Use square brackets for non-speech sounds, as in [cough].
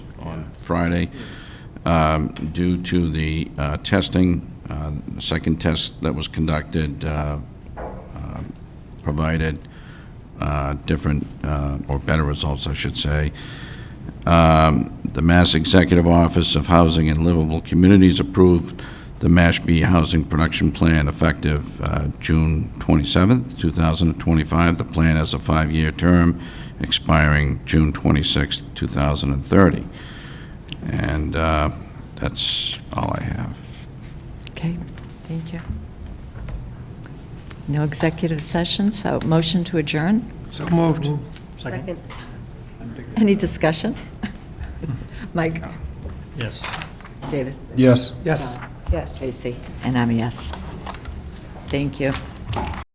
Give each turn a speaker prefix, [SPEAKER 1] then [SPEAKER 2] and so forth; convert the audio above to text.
[SPEAKER 1] Friday um, due to the uh, testing, uh, the second test that was conducted uh, uh, provided uh, different, uh, or better results, I should say. Um, The Mass Executive Office of Housing and Livable Communities approved the Mashpee Housing Production Plan effective uh, June 27, 2025. The plan has a five-year term expiring June 26, 2030. And uh, that's all I have.
[SPEAKER 2] Okay, thank you. No executive session, so motion to adjourn.
[SPEAKER 3] So moved.
[SPEAKER 4] Second.
[SPEAKER 2] Any discussion? [laughs] Mike?
[SPEAKER 3] Yes.
[SPEAKER 2] David?
[SPEAKER 5] Yes.
[SPEAKER 3] Yes.
[SPEAKER 4] Yes.
[SPEAKER 2] Casey? And I'm a yes. Thank you.